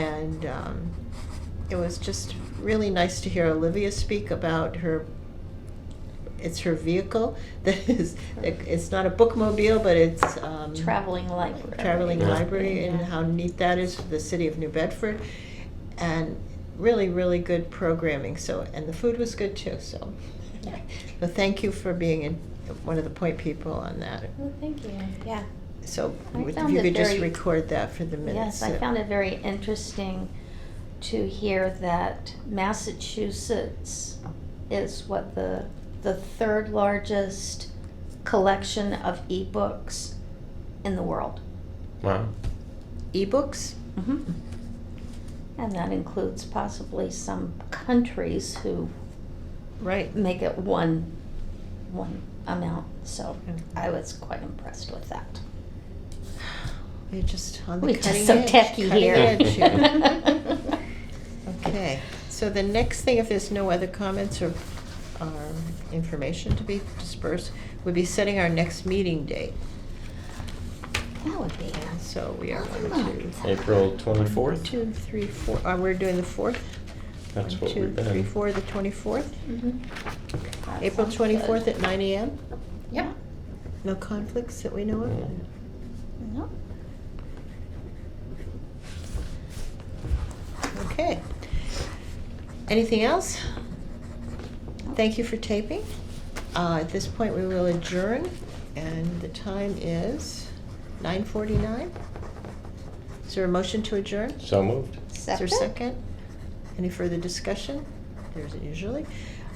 and um, it was just really nice to hear Olivia speak about her. It's her vehicle that is. It's not a bookmobile, but it's um, Traveling library. traveling Yeah. library, and Yeah. how neat that is for the city of New Bedford, and really, really good programming. So, and the food was good too. So, Yeah. so thank you for being in, one of the point people on that. Well, Oh, thank you. Yeah. So, I would- if found you it could just very- record that for the minutes. Yes, I that- found it very interesting to hear that Massachusetts is what the the third largest collection of ebooks in the world. Wow. Ebooks. Mm-hmm. And that includes possibly some countries who Right. make it one one amount. So Yeah. I was quite impressed with that. We're just on the We're cutting just so edge, techy cutting here. edge here. okay. So the next thing, if there's no other comments or, or information to be dispersed, would be setting our next meeting date. That would be And nice. so we are one, two, April 24th? one, two, three, four. Oh, we're doing the fourth. That's One, what two, we've been. three, four, the twenty-fourth. Mhm. That Mm-hmm. April sounds good. twenty-fourth at nine a.m. Yep. No conflicts that we know of. Mm. No. Okay. Anything else? Thank you for taping. Uh, At this point, we will adjourn, and the time is 9:49. Is there a motion to adjourn? So moved. Is there a Second? second? Any further discussion? There isn't usually.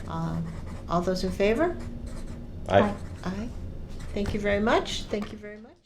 Um, All those in favor? I. Aye. Aye. Thank you very much. Thank you very much.